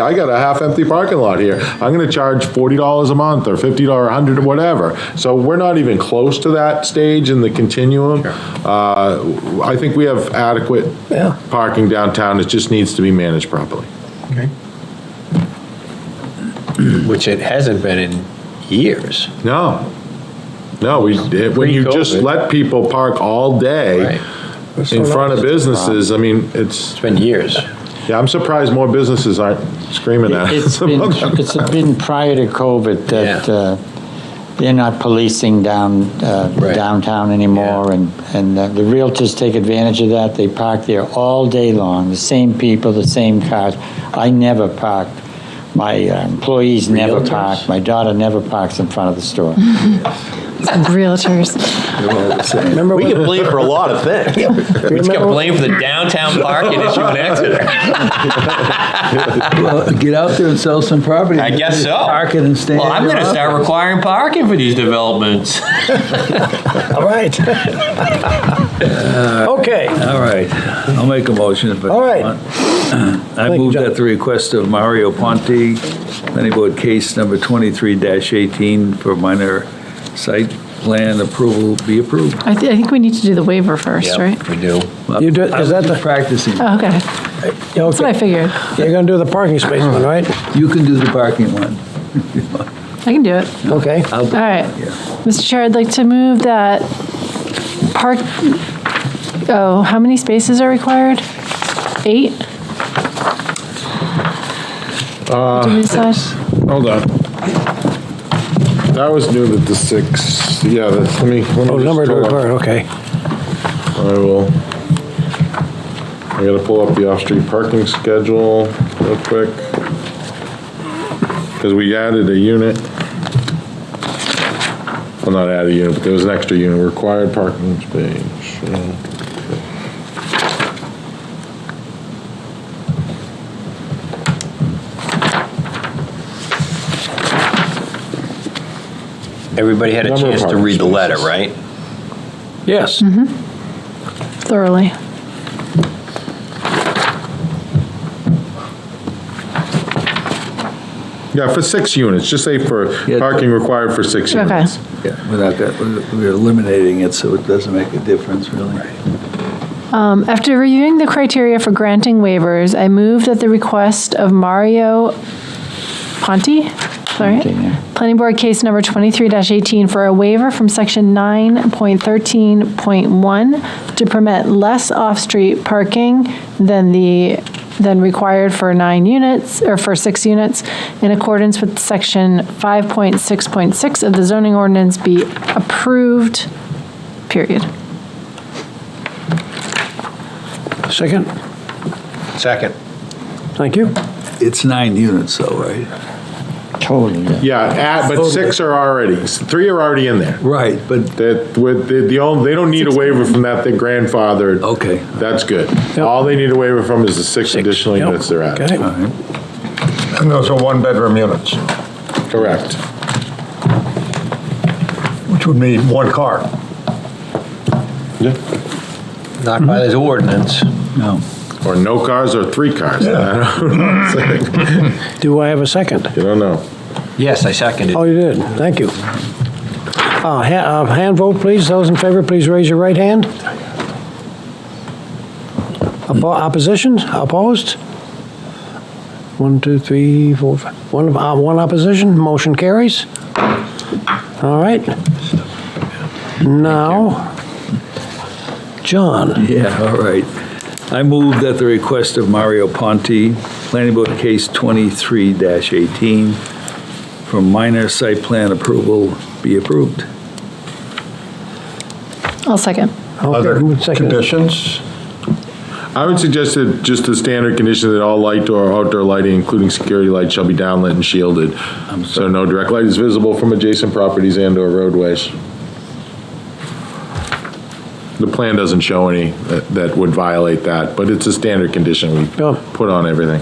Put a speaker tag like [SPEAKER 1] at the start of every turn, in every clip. [SPEAKER 1] I got a half-empty parking lot here. I'm gonna charge forty dollars a month, or fifty, or a hundred, or whatever. So we're not even close to that stage in the continuum. Uh, I think we have adequate
[SPEAKER 2] Yeah.
[SPEAKER 1] parking downtown, it just needs to be managed properly.
[SPEAKER 3] Which it hasn't been in years.
[SPEAKER 1] No, no, we, it- when you just
[SPEAKER 3] Pre-COVID.
[SPEAKER 1] let people park all day
[SPEAKER 3] Right.
[SPEAKER 1] in front of businesses, I mean, it's,
[SPEAKER 3] It's been years.
[SPEAKER 1] yeah, I'm surprised more businesses aren't screaming at
[SPEAKER 4] It's
[SPEAKER 1] us.
[SPEAKER 4] been, it's been prior to COVID that
[SPEAKER 3] Yeah.
[SPEAKER 4] uh, they're not policing down, uh,
[SPEAKER 3] Right.
[SPEAKER 4] downtown anymore, and, and uh, the realtors take advantage of that, they park there all day long, the same people, the same cars. I never parked, my uh, employees never
[SPEAKER 3] Realtors?
[SPEAKER 4] park, my daughter never parks in front of the store.
[SPEAKER 5] Realtors.
[SPEAKER 2] Remember
[SPEAKER 3] We
[SPEAKER 2] when,
[SPEAKER 3] get blamed for a lot of things. We just got blamed for the downtown parking issue in Exeter.
[SPEAKER 6] Well, Get out there and sell some property.
[SPEAKER 3] I guess so.
[SPEAKER 6] Park it and stay.
[SPEAKER 3] Well,
[SPEAKER 6] in
[SPEAKER 3] I'm
[SPEAKER 6] your
[SPEAKER 3] gonna start
[SPEAKER 6] office.
[SPEAKER 3] requiring parking for these developments.
[SPEAKER 2] all right.
[SPEAKER 3] Uh,
[SPEAKER 2] Okay,
[SPEAKER 6] All right, I'll make a motion if I
[SPEAKER 2] All right.
[SPEAKER 6] want. I
[SPEAKER 2] you,
[SPEAKER 6] move
[SPEAKER 2] John.
[SPEAKER 6] at the request of Mario Ponte, planning board case number 23-18 for minor site plan approval be approved.
[SPEAKER 5] I, th- I think we need to do the waiver first, right?
[SPEAKER 3] we do.
[SPEAKER 2] You do- is
[SPEAKER 6] I'm
[SPEAKER 2] that
[SPEAKER 6] just
[SPEAKER 2] the-
[SPEAKER 6] Practicing.
[SPEAKER 5] Oh, okay. That's what I
[SPEAKER 2] okay,
[SPEAKER 5] figured.
[SPEAKER 2] you're gonna do the parking space one, right?
[SPEAKER 6] You can do the parking one.
[SPEAKER 5] I can do it.
[SPEAKER 2] Okay,
[SPEAKER 6] I'll-
[SPEAKER 5] All right. Mr. Chair, I'd like to move that park, oh, how many spaces are required? Eight?
[SPEAKER 2] Uh,
[SPEAKER 5] Did we decide?
[SPEAKER 1] Hold on. That was new that the six, yeah, that's, let me. let me
[SPEAKER 2] oh,
[SPEAKER 1] just
[SPEAKER 2] number to
[SPEAKER 1] pull up.
[SPEAKER 2] record, okay.
[SPEAKER 1] I will, I gotta pull up the off-street parking schedule real quick. Because we added a unit. Well, not added a unit, but there was an extra unit, required parking space. yeah.
[SPEAKER 3] Everybody had a
[SPEAKER 1] Number of
[SPEAKER 3] chance to read the
[SPEAKER 1] parking
[SPEAKER 3] letter,
[SPEAKER 1] spaces.
[SPEAKER 3] right?
[SPEAKER 2] Yes.
[SPEAKER 5] Thoroughly.
[SPEAKER 1] Yeah, for six units, just say for
[SPEAKER 6] Yeah.
[SPEAKER 1] parking required for six
[SPEAKER 5] Okay.
[SPEAKER 1] units.
[SPEAKER 6] Yeah, without that, we're- we're eliminating it, so it doesn't make a difference, really.
[SPEAKER 5] Um, After reviewing the criteria for granting waivers, I move that the request of Mario Ponte, sorry,
[SPEAKER 4] Ponte, yeah.
[SPEAKER 5] Planning Board Case Number 23-18 for a waiver from Section 9.13.1 to permit less off-street parking than the, than required for nine units, or for six units, in accordance with Section 5.6.6 of the zoning ordinance be approved, period.
[SPEAKER 2] Second,
[SPEAKER 3] Second.
[SPEAKER 2] thank you.
[SPEAKER 6] It's nine units, though, right?
[SPEAKER 4] Totally, yeah.
[SPEAKER 1] Yeah, at, but six are already, three are already in there.
[SPEAKER 6] Right, but,
[SPEAKER 1] That, with, the, the only, they don't need a waiver from that, they're grandfathered.
[SPEAKER 6] okay.
[SPEAKER 1] That's good.
[SPEAKER 2] Yep.
[SPEAKER 1] All they need a waiver from is the six additional
[SPEAKER 2] Yep,
[SPEAKER 1] units they're at.
[SPEAKER 2] okay.
[SPEAKER 6] All right.
[SPEAKER 7] And those are one-bedroom units,
[SPEAKER 1] Correct.
[SPEAKER 7] which would mean one car.
[SPEAKER 3] Not by this ordinance.
[SPEAKER 6] No.
[SPEAKER 1] Or no cars or three cars. I don't know.
[SPEAKER 2] Do I have a second?
[SPEAKER 1] You don't know.
[SPEAKER 3] Yes, I seconded.
[SPEAKER 2] Oh, you did, thank you. Uh, ha- uh, Hand vote, please, those in favor, please raise your right hand. Oppo- Opposition, opposed? One, two, three, four, five. One, uh, one opposition, motion carries. All right. Now, John,
[SPEAKER 6] Yeah, all right. I move that the request of Mario Ponte, Planning Board Case 23-18, for minor site plan approval be approved.
[SPEAKER 5] I'll second.
[SPEAKER 7] Other
[SPEAKER 2] Okay, who's second?
[SPEAKER 7] conditions,
[SPEAKER 1] I would suggest that just the standard condition that all light or outdoor lighting, including security lights, shall be downlit and shielded. So no direct light is visible from adjacent properties and or roadways. The plan doesn't show any that- that would violate that, but it's a standard condition we
[SPEAKER 2] Yeah.
[SPEAKER 1] put on everything.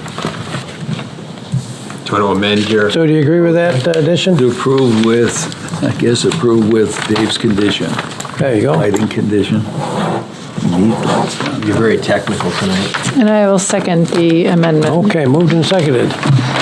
[SPEAKER 3] Do you want to amend your?
[SPEAKER 2] so do you agree with that addition?
[SPEAKER 6] To approve with, I guess approve with Dave's condition,
[SPEAKER 2] There you go.
[SPEAKER 6] lighting condition.
[SPEAKER 8] You're very technical tonight.
[SPEAKER 3] And I will second the amendment.
[SPEAKER 5] Okay, moved and seconded.